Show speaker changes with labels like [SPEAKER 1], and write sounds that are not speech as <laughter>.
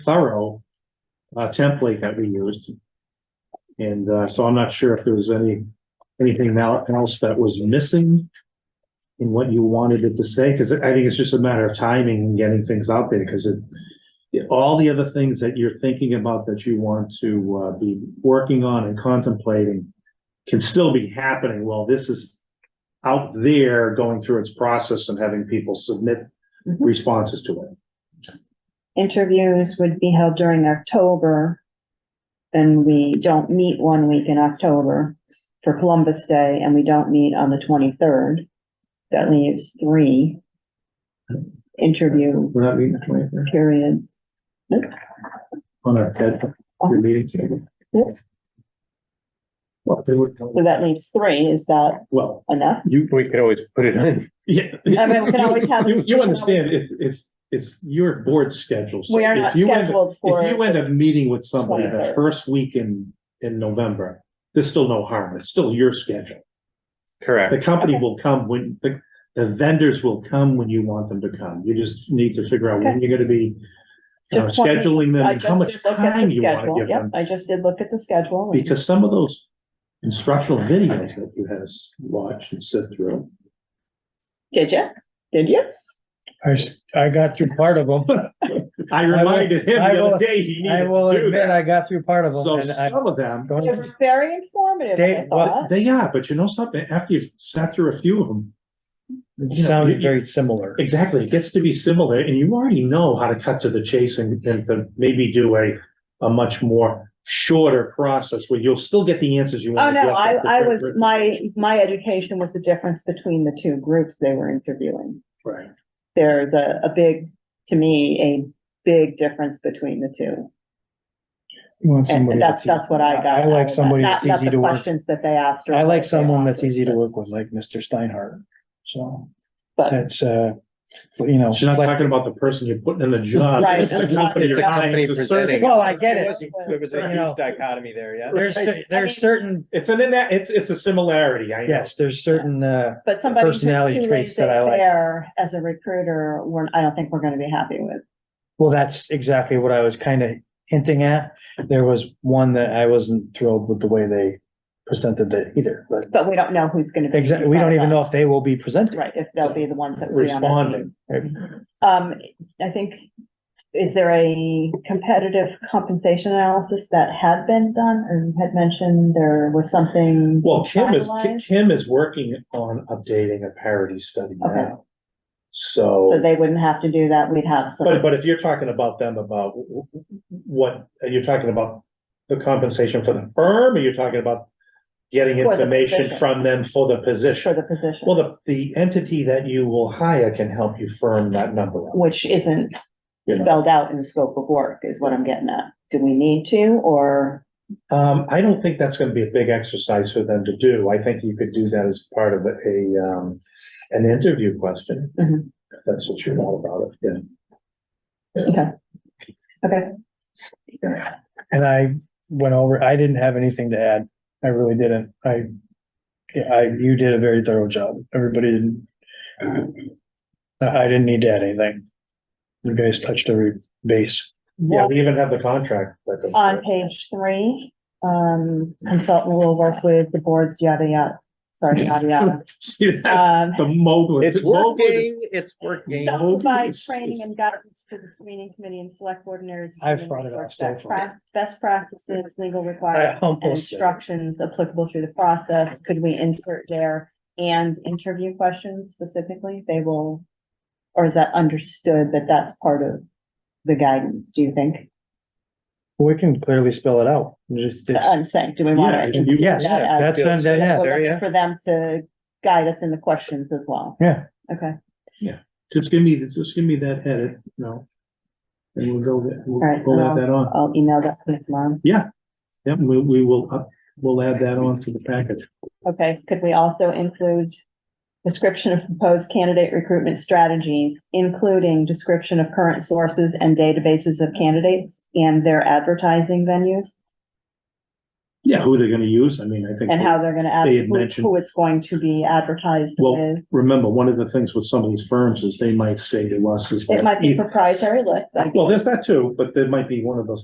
[SPEAKER 1] thorough uh, template that we used. And uh, so I'm not sure if there was any, anything now else that was missing in what you wanted it to say, because I think it's just a matter of timing and getting things out there, because it, yeah, all the other things that you're thinking about that you want to uh, be working on and contemplating can still be happening while this is out there going through its process and having people submit
[SPEAKER 2] Mhm.
[SPEAKER 1] responses to it.
[SPEAKER 2] interviews would be held during October. And we don't meet one week in October for Columbus Day and we don't meet on the twenty-third. That leaves three interview
[SPEAKER 1] Would that be the 23rd?
[SPEAKER 2] periods.
[SPEAKER 1] on our head, your meeting table.
[SPEAKER 2] Yep.
[SPEAKER 1] Well, they would,
[SPEAKER 2] So that leaves three. Is that
[SPEAKER 1] well,
[SPEAKER 2] enough?
[SPEAKER 1] you,
[SPEAKER 3] We could always put it in.
[SPEAKER 1] yeah.
[SPEAKER 2] I mean, we can always have-
[SPEAKER 1] You you understand, it's, it's, it's your board schedule. so
[SPEAKER 2] We are
[SPEAKER 1] if
[SPEAKER 2] not
[SPEAKER 1] you end up-
[SPEAKER 2] scheduled for,
[SPEAKER 1] If you end up meeting with somebody the
[SPEAKER 2] 23rd.
[SPEAKER 1] first week in, in November, there's still no harm, it's still your schedule. The
[SPEAKER 3] Correct.
[SPEAKER 1] company
[SPEAKER 2] Okay.
[SPEAKER 1] will come when, the, the vendors will come when you want them to come, you just need to figure out when you're gonna be you know,
[SPEAKER 2] Just wanted-
[SPEAKER 1] scheduling them
[SPEAKER 2] I
[SPEAKER 1] and how
[SPEAKER 2] just
[SPEAKER 1] much
[SPEAKER 2] did look at
[SPEAKER 1] time
[SPEAKER 2] the
[SPEAKER 1] you wanna
[SPEAKER 2] schedule.
[SPEAKER 1] give them.
[SPEAKER 2] Yep, I just did look at the schedule. and-
[SPEAKER 1] Because some of those instructional videos that you had us watch and sit through.
[SPEAKER 2] Did you? Did you?
[SPEAKER 4] I, s- I got through part of them.
[SPEAKER 1] I
[SPEAKER 4] will-
[SPEAKER 1] reminded him
[SPEAKER 4] I
[SPEAKER 1] the
[SPEAKER 4] will-
[SPEAKER 1] other day he
[SPEAKER 4] I
[SPEAKER 1] needed
[SPEAKER 4] will
[SPEAKER 1] to do
[SPEAKER 4] admit,
[SPEAKER 1] that.
[SPEAKER 4] I got through part of them
[SPEAKER 1] So
[SPEAKER 4] and I
[SPEAKER 1] some of them,
[SPEAKER 4] don't,
[SPEAKER 2] It was very informative, I
[SPEAKER 4] Dave, what-
[SPEAKER 2] thought.
[SPEAKER 1] they are, but you know something, after you've sat through a few of them.
[SPEAKER 4] it
[SPEAKER 1] you know,
[SPEAKER 4] sounded
[SPEAKER 1] you-
[SPEAKER 4] very similar.
[SPEAKER 1] Exactly, it gets to be similar and you already know how to cut to the chase and, and to maybe do a, a much more shorter process where you'll still get the answers you
[SPEAKER 2] Oh,
[SPEAKER 1] want.
[SPEAKER 2] no, I, I was, my, my education was the difference between the two groups they were interviewing.
[SPEAKER 1] Right,
[SPEAKER 2] There's a, a big, to me, a big difference between the two.
[SPEAKER 4] You want somebody
[SPEAKER 2] And that's,
[SPEAKER 4] that's
[SPEAKER 2] that's what I
[SPEAKER 4] easy-
[SPEAKER 2] got.
[SPEAKER 4] I
[SPEAKER 2] out of
[SPEAKER 4] like
[SPEAKER 2] that.
[SPEAKER 4] somebody
[SPEAKER 2] Not-
[SPEAKER 4] that's
[SPEAKER 2] not
[SPEAKER 4] easy
[SPEAKER 2] the
[SPEAKER 4] to work.
[SPEAKER 2] Questions that they asked. or
[SPEAKER 4] I like
[SPEAKER 2] that they
[SPEAKER 4] someone that's
[SPEAKER 2] offered,
[SPEAKER 4] easy to
[SPEAKER 2] but-
[SPEAKER 4] work with, like Mr. Steinhardt. So
[SPEAKER 2] But,
[SPEAKER 4] that's, uh, you know.
[SPEAKER 1] she's not
[SPEAKER 4] flex-
[SPEAKER 1] talking about the person you're putting in the job.
[SPEAKER 2] Right.
[SPEAKER 1] It's the company you're
[SPEAKER 2] It's the
[SPEAKER 1] trying
[SPEAKER 3] company
[SPEAKER 1] to serve.
[SPEAKER 3] presenting.
[SPEAKER 4] Well, I get it.
[SPEAKER 3] There was
[SPEAKER 4] You
[SPEAKER 3] a
[SPEAKER 4] know.
[SPEAKER 3] huge dichotomy there, yeah.
[SPEAKER 4] There's,
[SPEAKER 2] mean-
[SPEAKER 4] there's certain,
[SPEAKER 1] It's an, ina- it's, it's a similarity, I know.
[SPEAKER 4] yes, there's certain, uh,
[SPEAKER 2] but somebody who's too
[SPEAKER 4] Personality traits that I like.
[SPEAKER 2] there as a recruiter, we're, I don't think we're gonna be happy with.
[SPEAKER 4] well, that's exactly what I was kind of hinting at. There was one that I wasn't thrilled with the way they presented it either, but
[SPEAKER 2] But we don't know who's gonna be. in
[SPEAKER 4] exactly, we
[SPEAKER 2] front
[SPEAKER 4] don't
[SPEAKER 2] of
[SPEAKER 4] even know
[SPEAKER 2] us.
[SPEAKER 4] if they will be presenting.
[SPEAKER 2] Right, if they'll be the ones that. will be on our team.
[SPEAKER 1] Responding.
[SPEAKER 2] Um, I think, is there a competitive compensation analysis that had been done or you had mentioned there was something?
[SPEAKER 1] Well, Kim is,
[SPEAKER 2] finalized?
[SPEAKER 1] Kim is working on updating a parity study
[SPEAKER 2] Okay.
[SPEAKER 1] now.
[SPEAKER 2] So
[SPEAKER 1] So,
[SPEAKER 2] they wouldn't have to do that. We'd have some.
[SPEAKER 1] but, but if you're talking about them about w- w- what, are you talking about the compensation for the firm, or you're talking about getting
[SPEAKER 2] For the
[SPEAKER 1] information
[SPEAKER 2] position.
[SPEAKER 1] from them for the
[SPEAKER 2] For
[SPEAKER 1] position?
[SPEAKER 2] the position,
[SPEAKER 1] Well, the, the entity that you will hire can help you firm that number up.
[SPEAKER 2] which isn't
[SPEAKER 1] You know.
[SPEAKER 2] spelled out in the scope of work is what I'm getting at. Do we need to, or
[SPEAKER 1] Um, I don't think that's gonna be a big exercise for them to do. I think you could do that as part of a, um, an interview question.
[SPEAKER 2] Mhm.
[SPEAKER 1] If that's what you're all about, it, yeah.
[SPEAKER 4] And I went over, I didn't have anything to add. I really didn't. I, yeah, I, you did a very thorough job. Everybody didn't. uh, I I didn't need to add anything. You guys touched every base.
[SPEAKER 1] Yeah, Uh, we even have the contract. that goes
[SPEAKER 2] on
[SPEAKER 1] with
[SPEAKER 2] page three, um, consultant will work with the boards, yada, yada. Sorry, yada, yada.
[SPEAKER 1] it. <laughs> See that?
[SPEAKER 2] Um,
[SPEAKER 1] The mogul.
[SPEAKER 3] It's
[SPEAKER 1] the mogul is-
[SPEAKER 3] working, it's working.
[SPEAKER 2] Shall
[SPEAKER 1] Hope
[SPEAKER 2] provide
[SPEAKER 1] is-
[SPEAKER 2] training
[SPEAKER 1] is-
[SPEAKER 2] and
[SPEAKER 1] <laughs>
[SPEAKER 2] guidance to the screening committee and select board and areas. of
[SPEAKER 4] I've
[SPEAKER 2] human
[SPEAKER 4] brought it up
[SPEAKER 2] resource
[SPEAKER 4] so
[SPEAKER 2] best
[SPEAKER 4] far.
[SPEAKER 2] prac- Best practices, legal
[SPEAKER 4] I
[SPEAKER 2] requirements, and
[SPEAKER 4] almost, said it.
[SPEAKER 2] instructions applicable through the process. Could we insert there and interview questions specifically? They will, or is that understood that that's part of the guidance, do you think?
[SPEAKER 4] we can clearly spell it out. Just, it's,
[SPEAKER 2] I'm saying, do we want
[SPEAKER 1] Yeah,
[SPEAKER 2] to?
[SPEAKER 1] you-
[SPEAKER 4] yes,
[SPEAKER 2] Uh, Yeah,
[SPEAKER 4] that's,
[SPEAKER 3] yeah.
[SPEAKER 4] that- yeah.
[SPEAKER 2] For them to guide us in the questions as well.
[SPEAKER 4] Yeah.
[SPEAKER 2] Okay,
[SPEAKER 1] Just give me, just give me that headed, no. And we'll go, there. we'll
[SPEAKER 2] Alright,
[SPEAKER 1] we'll
[SPEAKER 2] um,
[SPEAKER 1] add that on.
[SPEAKER 2] I'll email that to tomorrow.
[SPEAKER 1] Yep, we, we will, up- we'll add that on to the package.
[SPEAKER 2] Okay, could we also include description of proposed candidate recruitment strategies, including description of current sources and databases of candidates and their advertising venues?
[SPEAKER 1] Yeah, who they're gonna use, I mean, I think.
[SPEAKER 2] and how they're gonna add,
[SPEAKER 1] They had
[SPEAKER 2] who-
[SPEAKER 1] mentioned-
[SPEAKER 2] who it's going to be advertised
[SPEAKER 1] Well,
[SPEAKER 2] with.
[SPEAKER 1] Remember, one of the things with some of these firms is they might say to us is that.
[SPEAKER 2] It might be proprietary, like, like
[SPEAKER 1] Well, there's that too, but there might be one of those